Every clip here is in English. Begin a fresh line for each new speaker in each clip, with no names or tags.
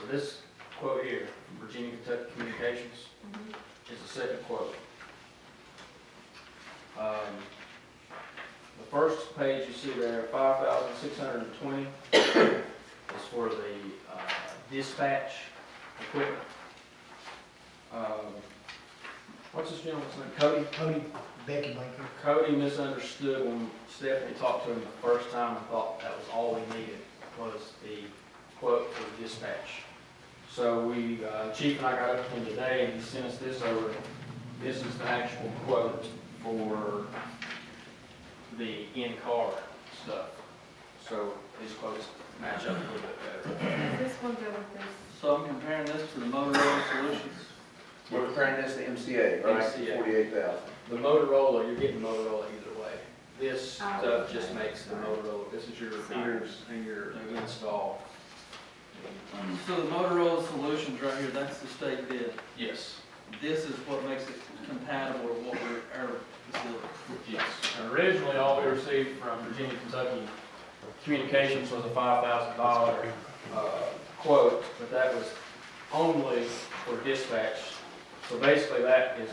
So this quote here, from Virginia Kentucky Communications,
Mm-hmm.
is the second quote. Um, The first page you see there, five thousand six hundred and twenty, is for the uh, dispatch equipment. Um, What's this gentleman's name, Cody?
Cody Beckenbaker.
Cody misunderstood when Stephanie talked to him the first time and thought that was all we needed, was the quote for the dispatch. So we, uh, Chief and I got up to him today and he sent us this over. This is the actual quote for the in-car stuff. So these quotes match up a little bit better.
Does this one go with this?
So I'm comparing this to the Motorola Solutions.
We're comparing this to MCA, right?
MCA.
Forty-eight thousand.
The Motorola, you're getting Motorola either way. This
Oh,
stuff just
okay.
makes the Motorola, this is your meters and your install.
So the Motorola Solutions right here, that's the state bid.
Yes,
This is what makes it compatible with what we're, our facility.
yes.
Originally, all we received from Virginia, Kentucky,
Communications was a five thousand dollar, uh, quote, but that was only for dispatch. So basically, that is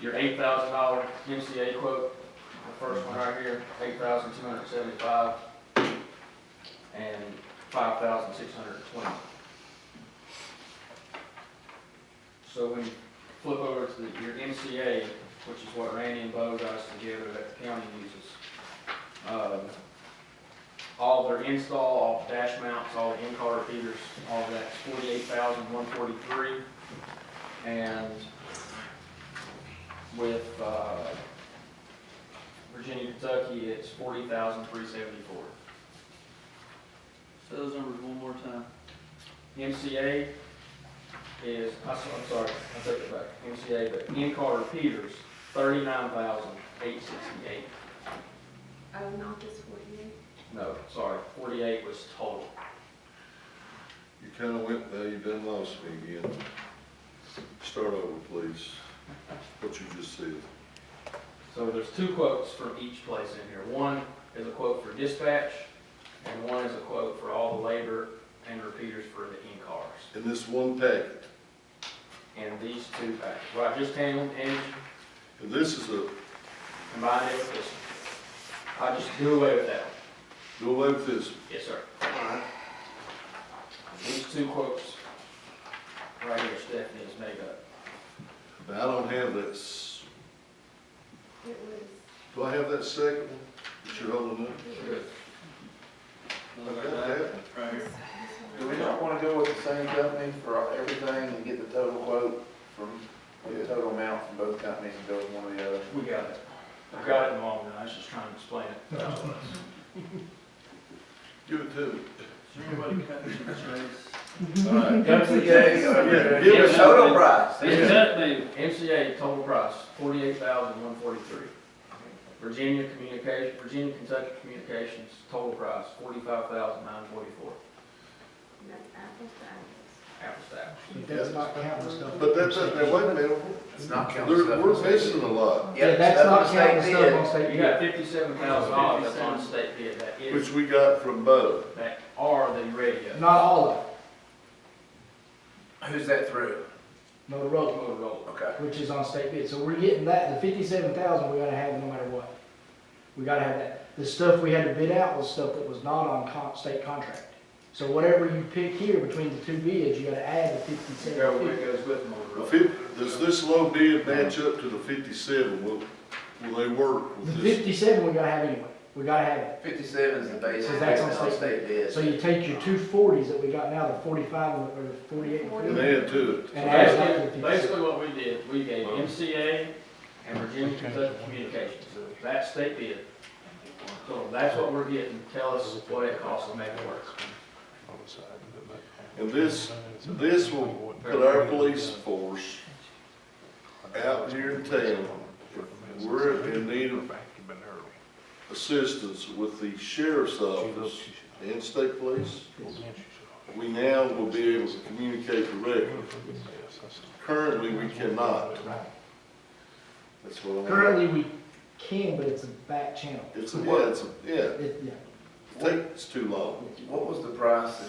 your eight thousand dollar MCA quote, the first one right here, eight thousand two hundred seventy-five, and five thousand six hundred twenty. So when you flip over to the- your MCA, which is what Randy and Bo got us together that the county uses, um, all their install, all the dash mounts, all the in-car repeaters, all of that's forty-eight thousand, one forty-three. And with, uh, Virginia, Kentucky, it's forty thousand, three seventy-four.
So those numbers one more time.
MCA is, I s- I'm sorry, I took it back, MCA, but in-car repeaters, thirty-nine thousand, eight sixty-eight.
Oh, not this forty-eight?
No, sorry, forty-eight was total.
You kinda went there, you done lost me again. Start over, please, what you just said.
So there's two quotes from each place in here. One is a quote for dispatch, and one is a quote for all the labor and repeaters for the in-cars.
In this one packet,
And these two back, what I just handled, and
and this is a,
combined it with this. one. I just do away with that one.
go away with this,
Yes, sir. These two quotes, right here, Stephanie has made up.
Now, I don't have that, s-
It was,
do I have that second one that you're holding up?
it was.
I've got that,
Right
this-
here.
this
Do
one
we
right
not wanna go with the same company for everything and get the total quote from, the total amount from both companies and go with one or the other?
We got it. I got it in the long run, I was just trying to explain it.
give it to
Is
me.
there anybody cutting the chase?
Alright,
MCA, give us total price.
Yes.
that the
MCA total price, forty-eight thousand, one forty-three. Virginia Communication, Virginia Kentucky Communications, total price, forty-five thousand, nine forty-four.
And that's apples to apples.
Apples to apples.
It does not count the stuff.
But that's, that, wait a minute,
It's not counting
There-
stuff.
we're missing a lot,
Yeah, that's not counting the stuff on state
You
bid.
got fifty-seven thousand dollars that's on state bid, that
which
is,
we got from Bo.
that are the radio.
Not all of it,
Who's that through?
Motorola,
Motorola.
Okay.
which is on state bid. So we're getting that, the fifty-seven thousand, we gotta have no matter what. We gotta have that. The stuff we had to bid out was stuff that was not on con, state contract. So whatever you pick here between the two bids, you gotta add
Go
the
where
fifty-seven.
it goes with
The
Motorola.
fif- Does this low bid match up to the fifty-seven? Will, will they work
The
with this?
fifty-seven we gotta have anyway. We gotta have it.
Fifty-seven is the basis,
So
that's
that's
on
on
state bid.
So you take your two forties that we got now, the forty-five and the- or the forty-eight. and
And
50,
add to it.
And add that to the
Basically,
57.
basically what we did, we gave MCA and Virginia Kentucky Communications, that state bid. So that's what we're getting, tell us what it costs to make it work.
And this, this will put our police force out here in town. If We're in need of assistance with the sheriff's office and state police. We now will be able to communicate directly. Currently, we cannot. That's what I want.
Currently, we can, but it's a back channel.
It's, a- yeah, it's, a- yeah,
It, yeah,
it takes too long.
What was the price